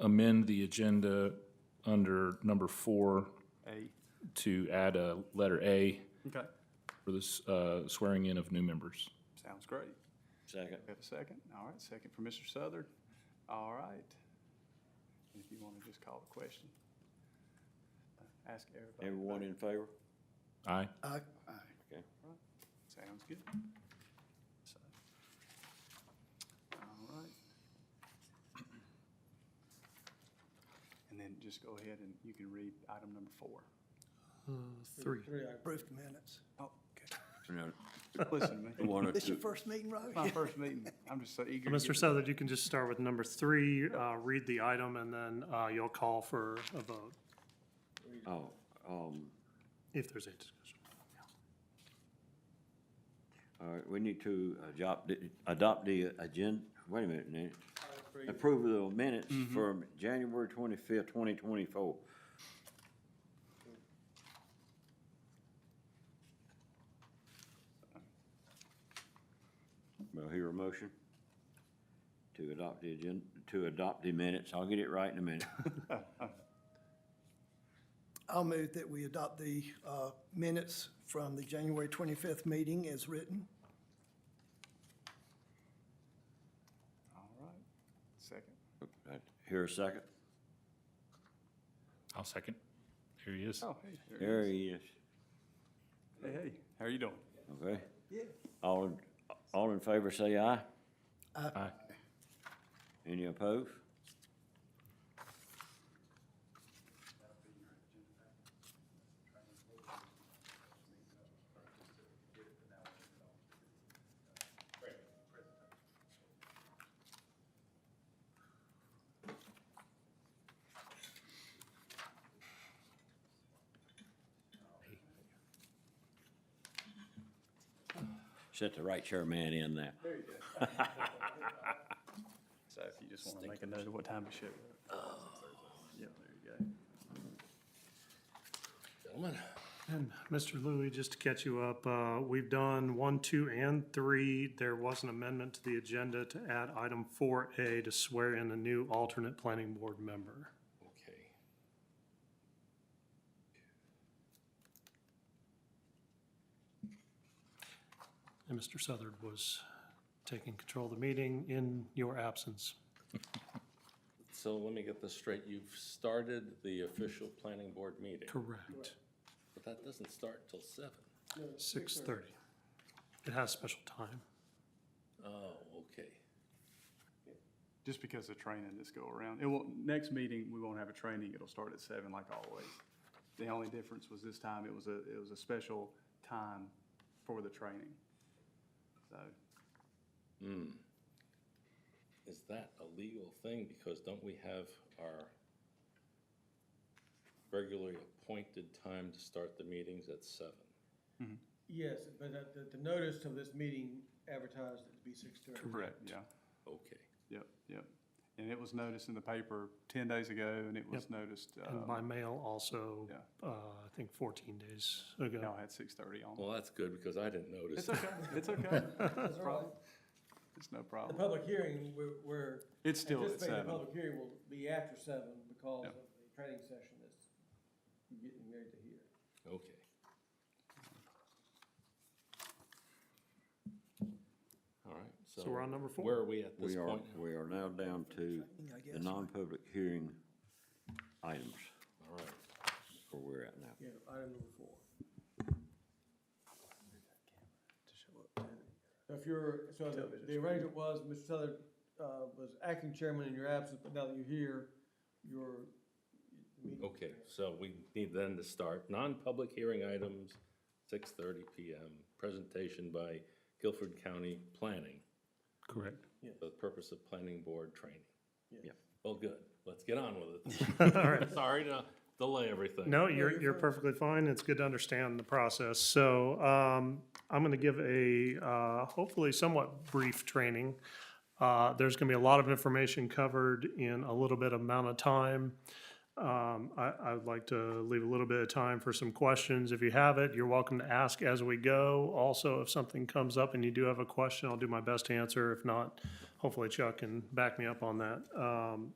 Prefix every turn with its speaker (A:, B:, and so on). A: amend the agenda under number four
B: A.
A: to add a letter A
B: Okay,
A: for this uh, swearing in of new members.
B: sounds great.
C: Second.
B: We have a second? All right, second for Mr. Southern. All right. If you want to just call the question. Uh, Ask everybody.
C: Everyone in favor?
A: Aye.
B: Sounds good. So, All right. And then just go ahead and you can read item number four.
D: Three.
E: Approved minutes.
B: Oh,
C: No.
B: okay. Listen to
C: I
B: me.
C: wanted
E: This your
C: to-
E: first meeting, Robbie?
B: My first meeting. I'm just so eager. to
D: Mr.
B: get-
D: Southard, you can just start with number three, uh, read the item, and then uh, you'll call for a vote
C: Oh, um,
D: if there's any discussion.
C: all right, we need to adopt, the- adopt the agenda, wait a minute, Nick. Approval of minutes from January twenty-fifth, twenty twenty-four. Will I hear a motion? To adopt the agenda, to adopt the minutes, I'll get it right in a minute.
E: I'll move that we adopt the uh, minutes from the January 25th meeting as written.
B: All right. Second.
C: Here a second?
A: I'll second. Here he is.
B: Oh, hey. there it
C: There
B: is.
C: he is.
B: Hey, hey, how are you doing?
C: Okay? Yeah. All, in all in favor, say aye.
A: Aye.
C: Any opposed? Set the right chairman in there.
B: So if you just want to make a note of what time to show up. Yeah, there you go.
D: And Mr. Louie, just to catch you up, uh, we've done one, two, and three. There was an amendment to the agenda to add item four A to swear in a new alternate planning board member.
F: Okay.
D: And Mr. Southard was taking control of the meeting in your absence.
F: So let me get this straight. You've started the official planning board meeting,
D: Correct.
F: but that doesn't start till seven.
D: Six thirty. It has special time.
F: Oh, okay.
B: Just because of training that's go around. It will, next meeting, we won't have a training. It'll start at seven like always. The only difference was this time it was a, it was a special time for the training. So,
F: Is that a legal thing? Because don't we have our regularly appointed time to start the meetings at seven?
G: Yes, but uh, the, the notice of this meeting advertised it to be six thirty.
B: correct, yeah,
F: Okay.
B: yep, yep. And it was noticed in the paper ten days ago and it was noticed,
D: And
B: uh,
D: by mail also,
B: yeah.
D: uh, I think fourteen days ago.
B: y'all had six thirty on.
F: Well, that's good because I didn't
B: It's
F: notice.
B: okay, it's okay. It's
G: all right.
B: prob- It's no
G: The
B: problem.
G: public hearing, we're, we're.
B: It's still at
G: anticipating The
B: seven.
G: public hearing will be after seven because
B: Yeah.
G: of the training session that's getting ready to hear.
F: Okay. All right, so.
D: So we're on number four.
F: Where are we at this
C: We are,
F: point?
C: we are now down to
E: I
C: the
E: guess.
C: non-public hearing items,
F: All right.
C: where we're at now.
G: Yeah, item number four. So if you're, so the- the arrangement was, Mr. Southern, uh, was acting chairman in your absence, but now that you're here, you're. the meeting-
F: Okay, so we need then to start non-public hearing items, six thirty PM, presentation by Guilford County Planning,
A: Correct.
F: the purpose of planning board training.
G: Yes.
C: Yep.
F: Well, good, let's get on with it.
D: All right.
F: Sorry to delay everything.
D: No, you're, you're perfectly fine. It's good to understand the process. So, um, I'm going to give a, uh, hopefully somewhat brief training. Uh, there's going to be a lot of information covered in a little bit amount of time. Um, I, I would like to leave a little bit of time for some questions. If you have it, you're welcome to ask as we go. Also, if something comes up and you do have a question, I'll do my best to answer. If not, hopefully Chuck can back me up on that. Um,